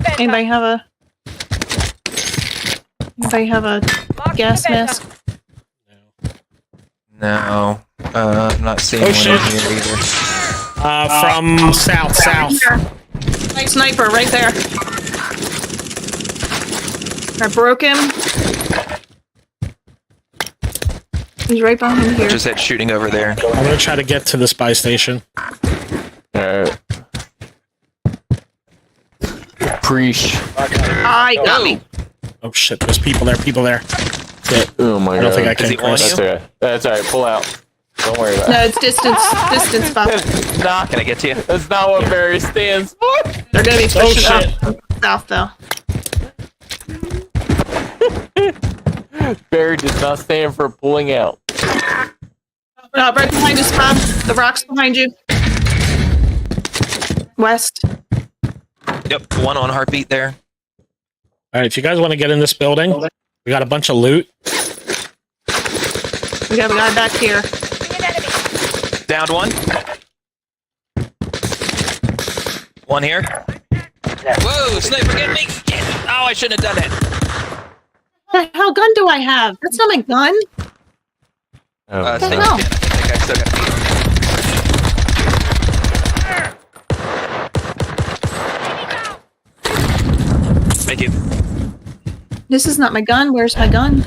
bed. Anybody have a? Anybody have a gas mask? No, uh, I'm not seeing Oh, one shit. in here either. Uh, from south, south. My sniper right there. I broke him. He's right behind here. Just that shooting over there. I'm gonna try to get to the spy station. Alright. Preach. I Ah, got me. Oh shit, there's people there, people there. Oh my god. I don't think I Uh, Is can he on Chris. That's alright. That's alright. Pull out. Don't worry about No, it's distance. Distance Oh, box. it. Nah, Can I get to you? that's not what Barry stands for. They're gonna be Oh pushing shit. up south though. Barry does not stand for pulling out. No, right behind us, Bob. The rocks behind you. West. Yep, one on heartbeat there. Alright, if you guys want to get in this building, we got a bunch of loot. We got a guy back here. Downed one. One here. Whoa, sniper, get me! Get- Oh, I shouldn't have done that. The hell gun do I have? That's not my gun. Oh, Uh, no. sniper, hell? I think I still got Thank you. This is not my gun. Where's my gun?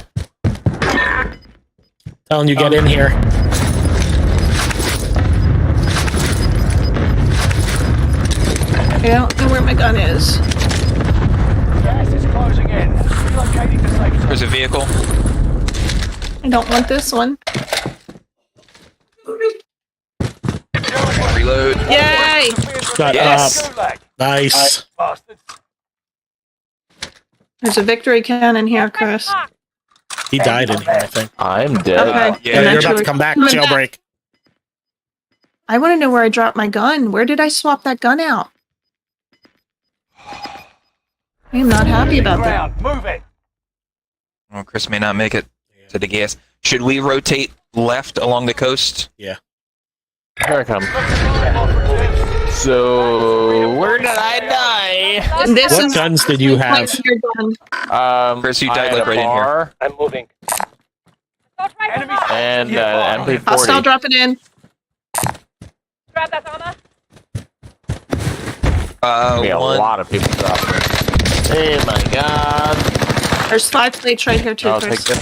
Telling you get in here. I don't know where my gun is. Gas is closing in. Relocating to safe zone. There's a vehicle. I don't want this one. Reload. Yay! Got Yes. up. Gulag, Nice. bastards. There's a victory cannon Oh here, Chris. He died in here, I think. I'm dead. Okay. Yeah, Yeah, you're about Eventually- to come back, coming back. jailbreak. I want to know where I dropped my gun. Where did I swap that gun out? I am not happy about that. Ground, move it. Well, Chris may not make it to the gas. Should we rotate left along the coast? Here I come. So where did I This What is guns did you have? Point your gun. die? Um, Chris, you I died, had like, a right in here. bar I'm moving. Enemy And Yeah, uh, bar. MP40. Hostile dropping in. Uh, Be a one. lot of people dropping. Hey my god. There's five plates right here too, I'll take Chris.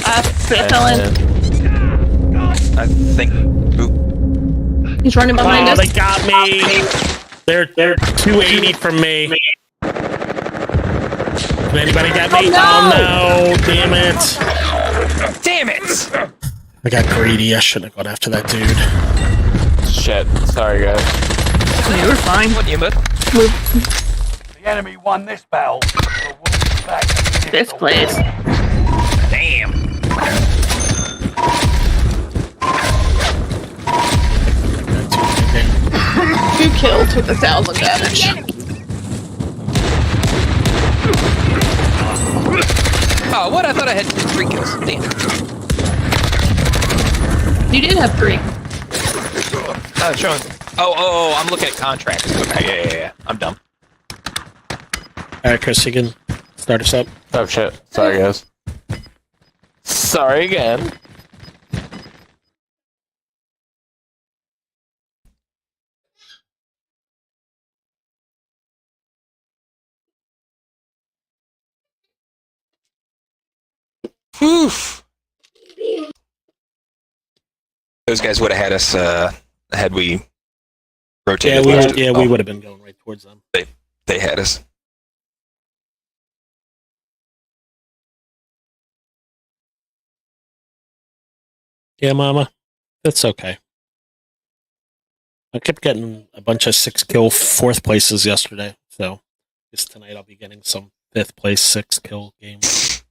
that. Uh, Chris Ellen. I think. Oop. He's running behind Oh, us. they got me. They're they're 280 from me. Did anybody get me? Oh, Oh no! Damn it! Damn it! I got greedy. I shouldn't have gone after that dude. Shit. Sorry guys. You were fine. What you, bud? The enemy won this battle. The wolf is back. This place. Damn. Two kills with a thousand damage. Oh, what? I thought I had three kills. Damn. You did have three. Oh, Sean. Oh, oh, oh, I'm looking at contracts. Okay, yeah, yeah, yeah. I'm dumb. All right, Chris, you can start us up. Oh shit. Sorry guys. Sorry again. Those guys would have had us uh, had we Yeah, rotated. we left. yeah Oh, we would have been going right towards them. They had us. Yeah, Mama, that's okay. I kept getting a bunch of six kill fourth places yesterday, so this tonight I'll be getting some fifth place six kill games.